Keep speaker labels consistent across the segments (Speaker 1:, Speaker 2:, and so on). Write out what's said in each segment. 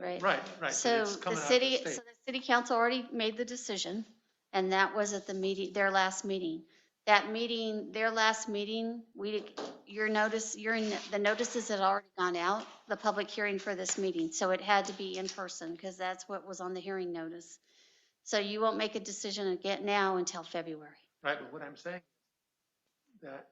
Speaker 1: right?
Speaker 2: Right, right. but
Speaker 1: So
Speaker 2: it's
Speaker 1: the
Speaker 2: coming out of
Speaker 1: city, so
Speaker 2: state.
Speaker 1: the city council already made the decision, and that was at the meeting, their last meeting. That meeting, their last meeting, we, your notice, your, the notices had already gone out, the public hearing for this meeting, so it had to be in person, because that's what was on the hearing notice. So you won't make a decision again now until February.
Speaker 2: Right, but what I'm saying, that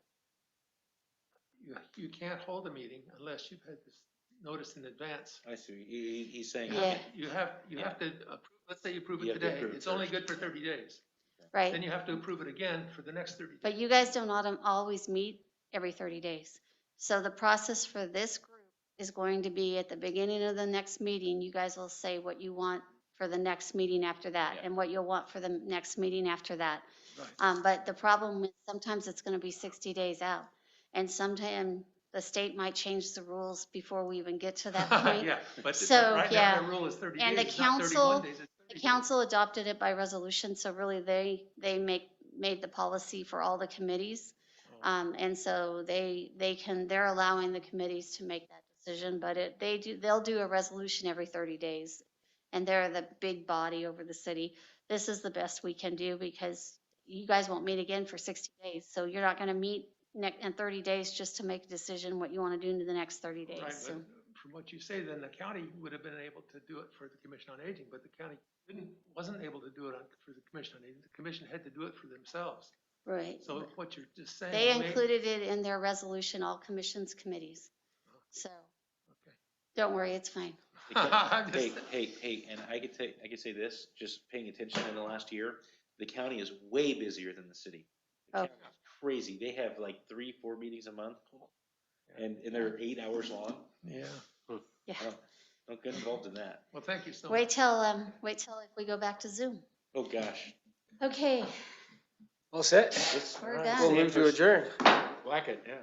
Speaker 2: you, you can't hold a meeting unless you've had this notice in advance.
Speaker 3: I see, he, he- he's saying,
Speaker 2: You have
Speaker 1: Yeah.
Speaker 2: to- You have, you have to, approve- let's say you approve
Speaker 3: You
Speaker 2: it
Speaker 3: have to
Speaker 2: today,
Speaker 3: approve
Speaker 2: it's only
Speaker 3: first.
Speaker 2: good for thirty days. Then
Speaker 1: Right,
Speaker 2: you have to approve it again for the next thirty
Speaker 1: but
Speaker 2: days.
Speaker 1: you guys don't autom- always meet every 30 days. So the process for this group is going to be at the beginning of the next meeting, you guys will say what you want for the next meeting after that,
Speaker 3: Yeah.
Speaker 1: and what you'll want for the next meeting after that.
Speaker 2: Right.
Speaker 1: Um, but the problem is sometimes it's gonna be sixty days out, and sometime the state might change the rules before we even get to that point.
Speaker 2: Yeah, but the-
Speaker 1: So,
Speaker 2: right now,
Speaker 1: yeah.
Speaker 2: the rule is thirty
Speaker 1: And the
Speaker 2: days, it's not thirty-one
Speaker 1: council-
Speaker 2: days. it's 30
Speaker 1: The
Speaker 2: days.
Speaker 1: council adopted it by resolution, so really they, they make, made the policy for all the committees.
Speaker 2: Oh,
Speaker 1: Um, and so they, they can, they're allowing the committees to make that decision, but it, they do, they'll do a resolution every thirty days. And they're the big body over the city. This is the best we can do because you guys won't meet again for sixty days. So you're not gonna meet next, in thirty days just to make a decision what you wanna do in the next thirty
Speaker 2: Right,
Speaker 1: days, so.
Speaker 2: but from what you say, then the county would have been able to do it for the Commission on Aging, but the county didn't, wasn't able to do it on, for the Commission on Aging. The commission had to do it for themselves.
Speaker 1: Right.
Speaker 2: So what you're just saying.
Speaker 1: They
Speaker 2: may-
Speaker 1: included it in their resolution, all commissions, committees. So,
Speaker 2: Okay.
Speaker 1: don't worry, it's fine.
Speaker 2: I'm
Speaker 3: hey,
Speaker 2: just-
Speaker 3: hey, hey, and I could say, I could say this, just paying attention in the last year, the county is way busier than the city. The
Speaker 1: Oh.
Speaker 3: county is Crazy, they have like three, four meetings a month, and, and they're eight hours long,
Speaker 2: Yeah,
Speaker 1: Yeah.
Speaker 3: don't get involved in that,
Speaker 2: well, thank you so much.
Speaker 1: Wait till, um, wait till if we go back to Zoom.
Speaker 3: oh gosh.
Speaker 1: Okay.
Speaker 4: All set?
Speaker 3: Let's-
Speaker 1: We're
Speaker 3: all right,
Speaker 1: done.
Speaker 4: We'll move to
Speaker 3: Sanders,
Speaker 4: adjourn.
Speaker 3: Whack it, yeah.